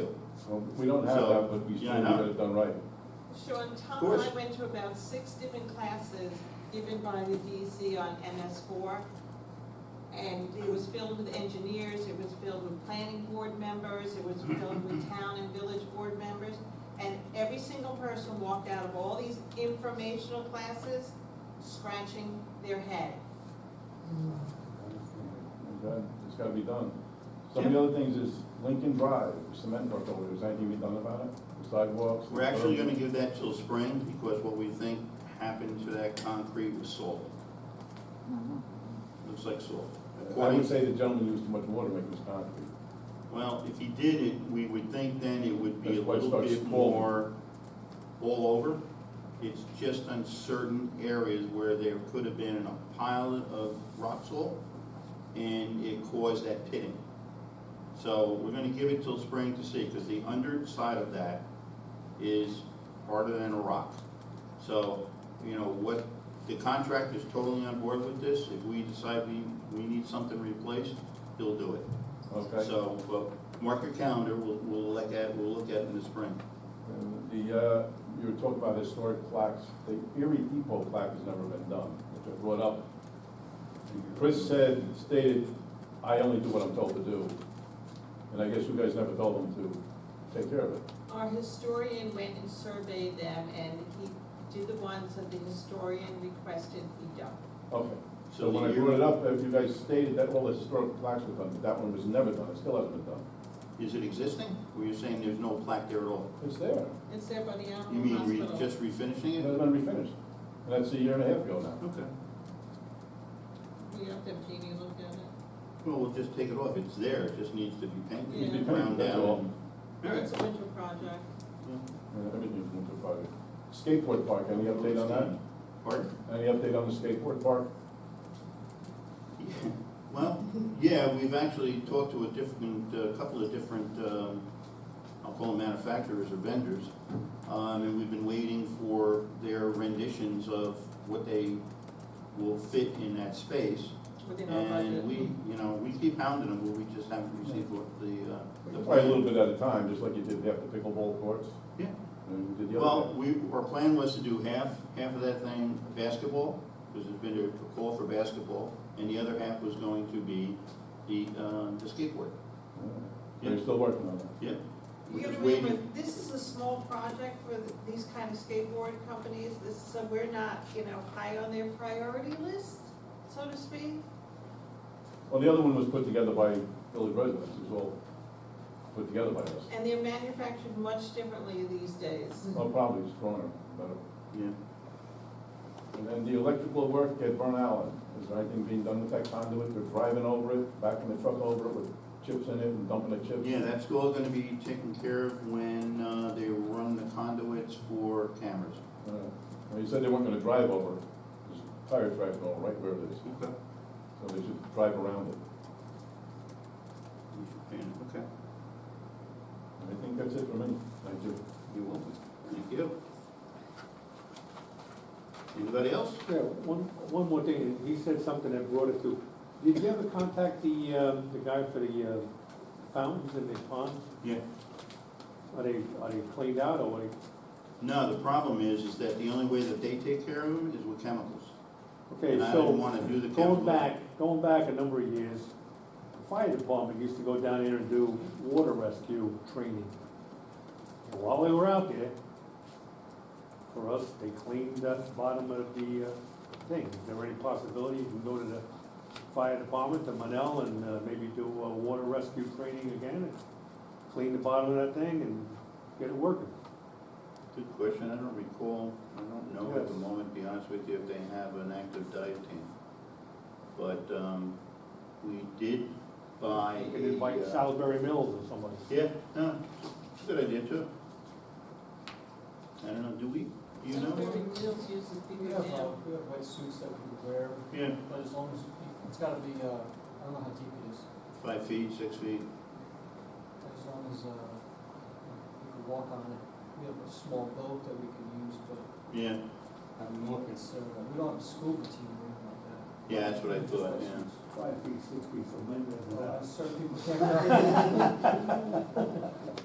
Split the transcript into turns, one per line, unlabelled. Well, we don't have
So,
that, but we
yeah, I
still need
know.
it done right.
Sean,
Of
Tom and
course.
I went to about six different classes given by the DEC on MS four. And it was filled with engineers, it was filled with planning board members, it was filled with town and village board members. And every single person walked out of all these informational classes scratching their head.
Okay, It's gotta be done. Some of the other things is Lincoln Drive, cement work over there, is anything be done about it? Sidewalks?
We're actually gonna give that till spring, because what we think happened to that concrete was salt. Looks like salt.
I
According-
would say the gentleman used too much water making this concrete.
Well, if he did it, we would think then it would be a
That's why it
little
starts
bit
small.
more all over. It's just on certain areas where there could have been a pile of rock salt, and it caused that pitting. So we're gonna give it till spring to see, because the underside of that is harder than a rock. So, you know, what, the contractor is totally on board with this, if we decide we, we need something replaced, he'll do it.
Okay?
So, but mark your calendar, we'll, we'll look at, we'll look at it in the spring.
And The, uh, you were talking about historic plaques. The Erie Depot plaque has never been done, which I brought up. Chris said, stated, I only do what I'm told to do. And I guess you guys never told him to take care of it.
Our historian went and surveyed them and he did the ones that the historian requested we don't.
Okay. So
So
when I
the
brought it
year,
up, if you guys stated that all the historic plaques were done, that one was never done, it still hasn't been done.
is it existing, or you're saying there's no plaque there at all?
It's there,
It's there by the
You
animal
mean,
hospital.
re- just
it
refinishing it?
hasn't been refinished. And that's a year and a half ago now.
Okay,
We have to have Jeannie look at it.
well, we'll just take it off, it's there, it just needs to be
Yeah.
painted,
It's
and
been
ground
painted, that's all.
down. All right.
It's a winter project.
And Everything's been to project. Skateboard park, any update on that?
Pardon?
Any update on the skateboard park?
Yeah. Well, yeah, we've actually talked to a different, a couple of different, um, I'll call them manufacturers or vendors. Um, and we've been waiting for their renditions of what they will fit in that space.
within our budget.
And we, you know, we keep hounding them, but we just haven't received what the, uh, the
Probably a little
plan.
bit at a time, just like you did half the pickleball courts.
Yeah.
And you did the other.
Well,
half.
we, our plan was to do half, half of that thing basketball, because there's been a call for basketball, and the other half was going to be the, uh, the skateboard.
Yeah. They're still working on that.
Yep. We're
You
just
remember,
waiting.
this is a small project for th- these kind of skateboard companies, this, so we're not, you know, high on their priority list, so to speak.
Well, the other one was put together by village residents, it was all put together by us.
And they're manufactured much differently these days.
Well, probably stronger, better.
Yeah.
And then the electrical work at Burn Allen, is there anything being done with that conduit? They're driving over it, backing the truck over it with chips in it and dumping the chips?
Yeah, that's all gonna be taken care of when, uh, they run the conduits for cameras.
Uh, well, You said they weren't gonna drive over it, just tire track going right where it is,
Okay.
so they should drive around it.
Okay,
And I think that's it for me. Thank you.
you're welcome. Thank you. Anybody else?
Yeah, one, one more thing, he said something that brought it to, did you ever contact the, um, the guy for the uh, fountains and the ponds?
Yeah.
Are they, are they cleaned out or are they,
No, the problem is, is that the only way that they take care of them is with chemicals.
okay,
And I don't
so,
wanna do the chemicals.
going back, going back a number of years, the fire department used to go down there and do water rescue training. And While we were out there, for us, they cleaned that bottom of the uh, thing. Is there any possibility you can go to the fire department, the Manel, and uh, maybe do uh, water rescue training again? and Clean the bottom of that thing and get it working.
Good question, I don't recall, I don't know at the
Yes.
moment, to be honest with you, if they have an active dive team. But, um, we did buy
You can
a.
invite
uh,
Salisbury Mills or somebody.
Yeah, no, it's a good idea too. I don't know, do we, do you
Some
know?
very Mills uses
We
people
have,
now.
uh, we have white suits that we can wear,
Yeah,
but as long as, it's gotta be, uh, I don't know how deep it is,
five feet, six feet,
but as long as, uh, we can walk on it. We have a small boat that we can use, but
yeah,
I'm more concerned, uh, we don't have a scuba team or anything like that.
yeah, that's what I
Just
thought,
white
yeah.
suits.
Five feet, six feet, so maybe
Uh, Certain people can't.